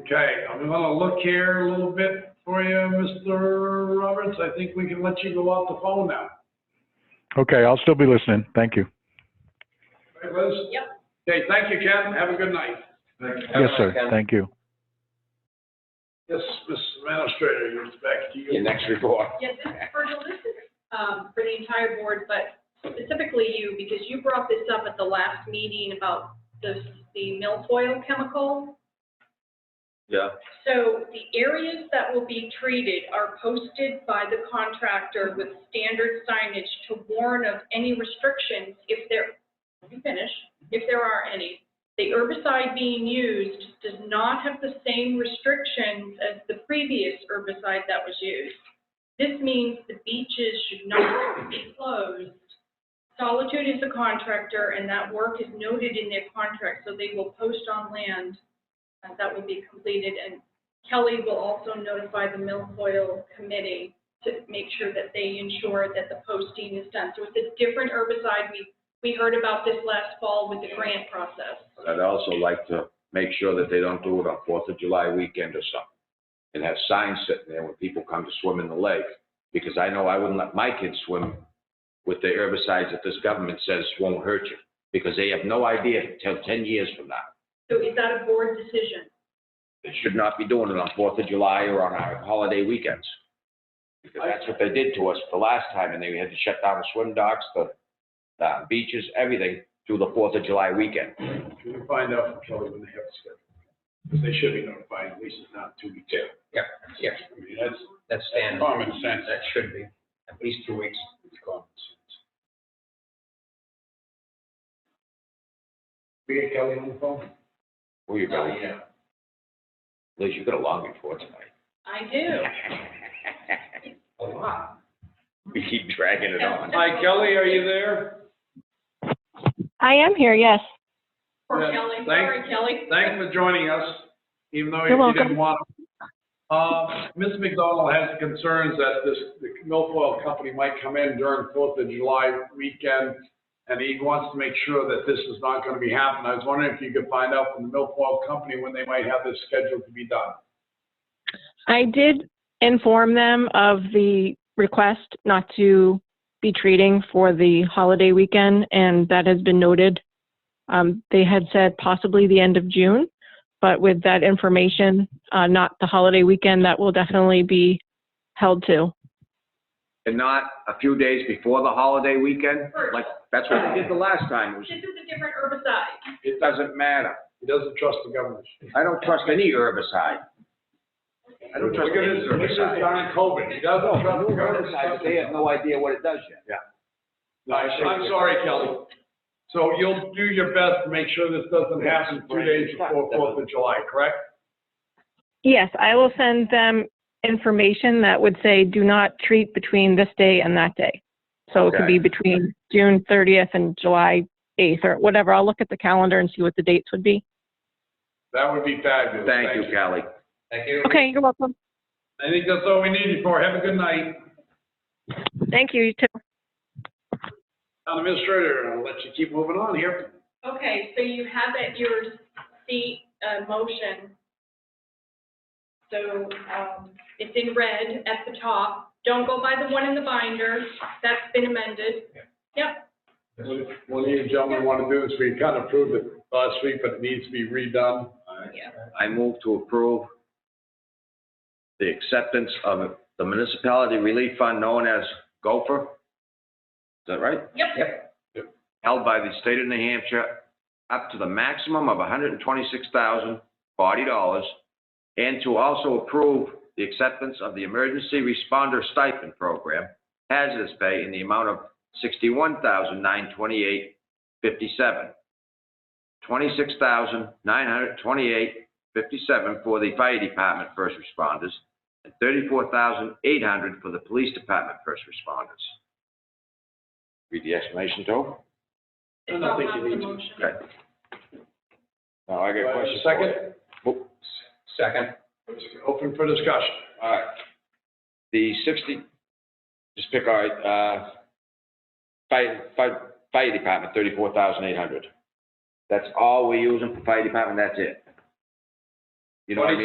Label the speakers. Speaker 1: Okay, I'm gonna look here a little bit for you, Mr. Roberts. I think we can let you go off the phone now.
Speaker 2: Okay, I'll still be listening. Thank you.
Speaker 1: Right, Liz?
Speaker 3: Yep.
Speaker 1: Okay, thank you, Ken. Have a good night.
Speaker 2: Yes, sir. Thank you.
Speaker 1: Yes, Ms. Administrator, you're back to you.
Speaker 4: Your next report.
Speaker 3: Yes, this is for this is, um, for the entire board, but specifically you, because you brought this up at the last meeting about the, the milfoil chemical.
Speaker 5: Yeah.
Speaker 3: So the areas that will be treated are posted by the contractor with standard signage to warn of any restrictions if there, let me finish, if there are any. The herbicide being used does not have the same restrictions as the previous herbicide that was used. This means the beaches should not be closed. Solitude is a contractor, and that work is noted in their contract, so they will post on land uh, that will be completed. And Kelly will also notify the milfoil committee to make sure that they ensure that the posting is done. So it's a different herbicide. We, we heard about this last fall with the grant process.
Speaker 4: But I'd also like to make sure that they don't do it on Fourth of July weekend or something. And have signs sitting there when people come to swim in the lake, because I know I wouldn't let my kids swim with the herbicides that this government says won't hurt you, because they have no idea till ten years from now.
Speaker 3: So is that a board decision?
Speaker 4: They should not be doing it on Fourth of July or on our holiday weekends. Because that's what they did to us the last time, and they had to shut down the swim docks, the, the beaches, everything through the Fourth of July weekend.
Speaker 1: Can you find out from Kelly when they have it scheduled? Because they should be notified, at least it's not two weeks out.
Speaker 6: Yep, yes.
Speaker 1: I mean, that's
Speaker 6: That's standard.
Speaker 1: common sense.
Speaker 6: That should be, at least two weeks.
Speaker 1: common sense. We get Kelly on the phone?
Speaker 4: Where you going?
Speaker 6: Yeah.
Speaker 4: Liz, you got a long report tonight.
Speaker 3: I do.
Speaker 6: A lot.
Speaker 4: We keep dragging it on.
Speaker 1: Hi, Kelly, are you there?
Speaker 7: I am here, yes.
Speaker 3: Poor
Speaker 1: Yeah,
Speaker 3: Kelly,
Speaker 1: thank-
Speaker 3: sorry, Kelly.
Speaker 1: Thanks for joining us, even though
Speaker 7: You're
Speaker 1: you didn't want to. Uh, Ms. McDonald has concerns that this, the milfoil company might come in during Fourth of July weekend, and he wants to make sure that this is not going to be happening. I was wondering if you could find out from the milfoil company when they might have this scheduled to be done.
Speaker 7: I did inform them of the request not to be treating for the holiday weekend, and that has been noted. Um, they had said possibly the end of June, but with that information, uh, not the holiday weekend, that will definitely be held to.
Speaker 4: And not a few days before the holiday weekend? Like, that's what they did the last time. It was-
Speaker 3: This is a different herbicide.
Speaker 4: It doesn't matter.
Speaker 1: He doesn't trust the government.
Speaker 4: I don't trust any herbicide. I don't trust any
Speaker 1: This is
Speaker 4: herbicide.
Speaker 1: on COVID. He doesn't trust the government.
Speaker 4: They have no idea what it does yet.
Speaker 1: No, I'm sorry, Kelly. So you'll do your best to make sure this doesn't happen two days before Fourth of July, correct?
Speaker 7: Yes, I will send them information that would say do not treat between this day and that day. So it could
Speaker 4: Okay.
Speaker 7: be between June 30th and July 8th or whatever. I'll look at the calendar and see what the dates would be.
Speaker 1: That would be fabulous.
Speaker 4: Thank you, Callie.
Speaker 6: Thank you.
Speaker 7: Okay, you're welcome.
Speaker 1: I think that's all we needed for. Have a good night.
Speaker 7: Thank you. You too.
Speaker 1: Town administrator, I'll let you keep moving on here.
Speaker 3: Okay, so you have at your seat, uh, motion. So, um, it's in red at the top. Don't go by the one in the binder. That's been amended. Yep,
Speaker 1: One of you gentlemen want to do this, we kind of approved it last week, but it needs to be redone.
Speaker 4: I move to approve the acceptance of the municipality relief fund known as Gopher. Is that right?
Speaker 3: yep.
Speaker 4: held by the state of New Hampshire up to the maximum of $126,040, and to also approve the acceptance of the Emergency Responder Stipend Program, hazardous pay in the amount of $61,928.57. $26,928.57 for the fire department first responders, and $34,800 for the police department first responders. Read the explanation,
Speaker 1: I
Speaker 4: Tove?
Speaker 1: don't
Speaker 3: It's not
Speaker 1: think
Speaker 3: on
Speaker 1: you
Speaker 3: the
Speaker 1: need to.
Speaker 3: motion.
Speaker 4: Okay. Now, I
Speaker 1: Do I have
Speaker 4: got a
Speaker 1: a
Speaker 4: question. for
Speaker 1: second?
Speaker 4: you. Oh,
Speaker 6: Second.
Speaker 1: Open for discussion.
Speaker 4: All right. The sixty, just pick, all right, uh, fire, fire, fire department, thirty-four thousand eight hundred. That's all we're using for fire department, that's it. You know what I mean?